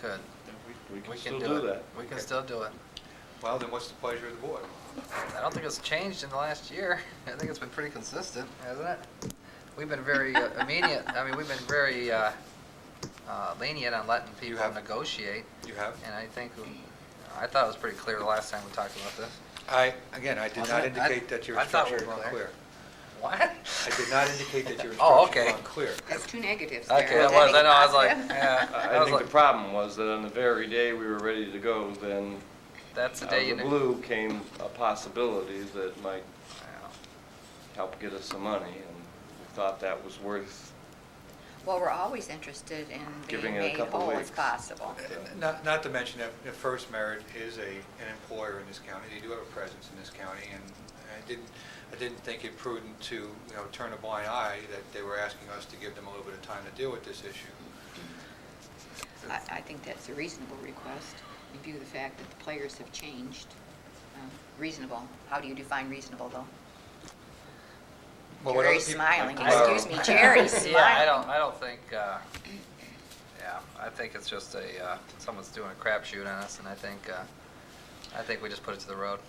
Could, Yeah, we can can still do it. that. We can still do it. Well, then what's the pleasure of the board? I don't think it's changed in the last year. I think it's been pretty consistent, hasn't it? We've been very uh, immediate, I mean, we've been very uh, uh, lenient on letting people have- negotiate, You have? and I think, I thought it was pretty clear the last time we talked about this. I, again, I did Wasn't not it? I- indicate that your I thought we instructions were were unclear. What? I did not indicate that your Oh, instructions were okay. unclear. That's two negatives there. Okay, it was, I know, I was like, Positive. yeah, I I I was think the like, problem was that on the very day we were ready to go, then that's the out of day you the knew. blue came a possibility that might Yeah. help get us some money, and we thought that was worth, Well, we're always interested in Giving being it a made couple whole weeks. as possible. Not, not to mention that that First Merit is a, an employer in this county, they do have a presence in this county, and I didn't, I didn't think it prudent to, you know, turn a blind eye, that they were asking us to give them a little bit of time to deal with this issue. I, I think that's a reasonable request, in view of the fact that the players have changed. Um, Reasonable, how do you define reasonable, though? Well, what Jerry's other peop- smiling, Well- excuse me, Jerry's smiling. Yeah, I don't, I don't think, uh, yeah, I think it's just a, uh, someone's doing a crapshoot on us, and I think, uh, I think we just put it to the road.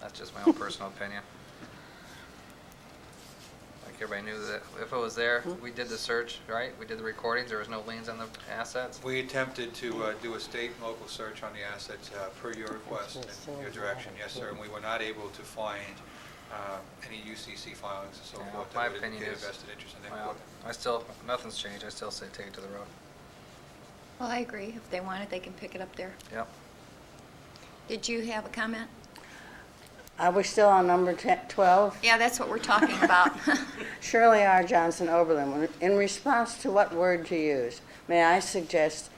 That's just my own personal opinion. Like, everybody knew that if it was there, we did the search, right? We did the recordings, there was no liens on the assets. We attempted to uh, do a state and local search on the assets uh, per your request and your direction, yes, sir, and we were not able to find uh, any UCC filings and so Yeah, forth my that would opinion indicate a is- vested interest in that Well, equipment. I still, nothing's changed, I still say take it to the road. Well, I agree. If they want it, they can pick it up there. Yep. Did you have a comment? Are we still on number 10 12? Yeah, that's what we're talking about. Shirley R. Johnson Oberlin, in response to what word to use, may I suggest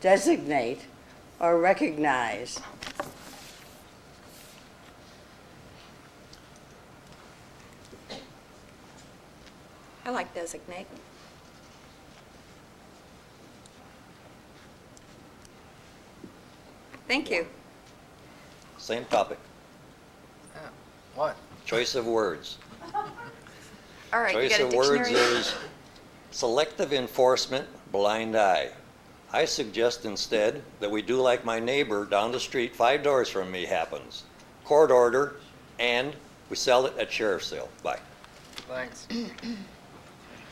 designate or recognize? I like designate. Thank you. Same topic, Yeah. What? choice of words. All right, you Choice got a of words dictionary? is selective enforcement, blind eye. I suggest instead that we do like my neighbor down the street, five doors from me happens. Court order, and we sell it at sheriff's sale. Bye. Thanks.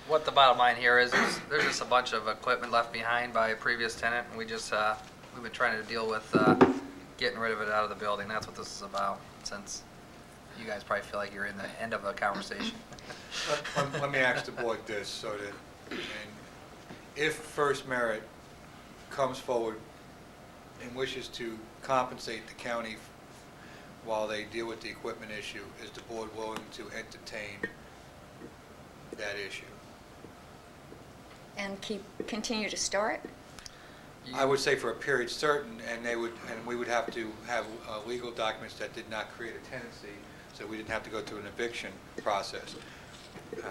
What the bottom line here is, is there's just a bunch of equipment left behind by a previous tenant, and we just, uh, we've been trying to deal with, uh, getting rid of it out of the building. That's what this is about, since you guys probably feel like you're in the end of a conversation. Let- let- Let me ask the board this, so that, and if First Merit comes forward and wishes to compensate the county while they deal with the equipment issue, is the board willing to entertain that issue? And keep, continue to store it? I would say for a period certain, and they would, and we would have to have uh, legal documents that did not create a tenancy, so we didn't have to go through an eviction process. Uh,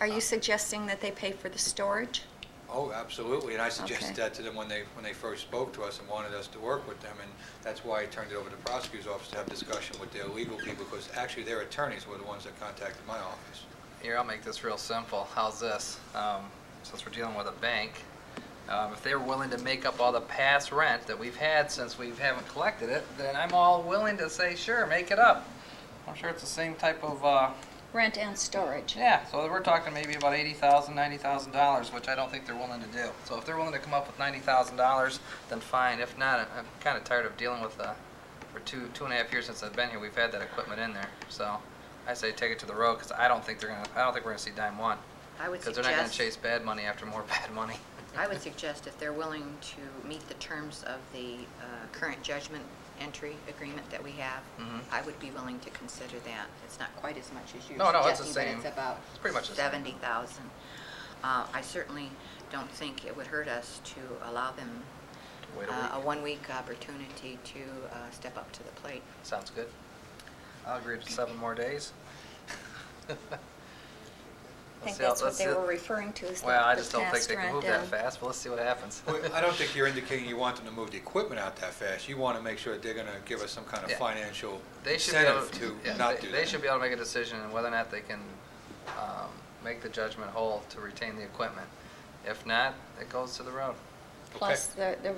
Are you suggesting that they pay for the storage? Oh, absolutely, and I suggested Okay. that to them when they, when they first spoke to us and wanted us to work with them, and that's why I turned it over to the prosecutor's office to have discussion with their legal people, because actually their attorneys were the ones that contacted my office. Here, I'll make this real simple. How's this? Um, since we're dealing with a bank, um, if they're willing to make up all the past rent that we've had since we haven't collected it, then I'm all willing to say, sure, make it up. I'm sure it's the same type of, uh, Rent and storage. Yeah, so we're talking maybe about eighty thousand, ninety thousand dollars, which I don't think they're willing to do. So if they're willing to come up with ninety thousand dollars, then fine. If not, I- I'm kind of tired of dealing with, uh, for two, two and a half years since I've been here, we've had that equipment in there. So I say take it to the road, because I don't think they're gonna, I don't think we're gonna see dime one. I would Because they're not gonna suggest, chase bad money after more bad money. I would suggest if they're willing to meet the terms of the uh, current judgment entry agreement that we have, Mhm. I would be willing to consider that. It's not quite as much as you're No, no, it's the suggesting, but it's same. about It's pretty much the same. 70,000. Uh, I certainly don't think it would hurt us to allow them Wait a uh, a week. one-week opportunity to uh, step up to the plate. Sounds good. I'll agree to seven more days. I think that's what they were referring to as the the Well, I just past don't think they can rent move that and- fast, but let's see what happens. Well, I don't think you're indicating you want them to move the equipment out that fast, you want to make sure that they're going to give us some kind of Yeah. financial They should be able incentive to, yeah, to not they, do they that. should be able to make a decision on whether or not they can um, make the judgment whole to retain the equipment. If not, it goes to the road. plus the, the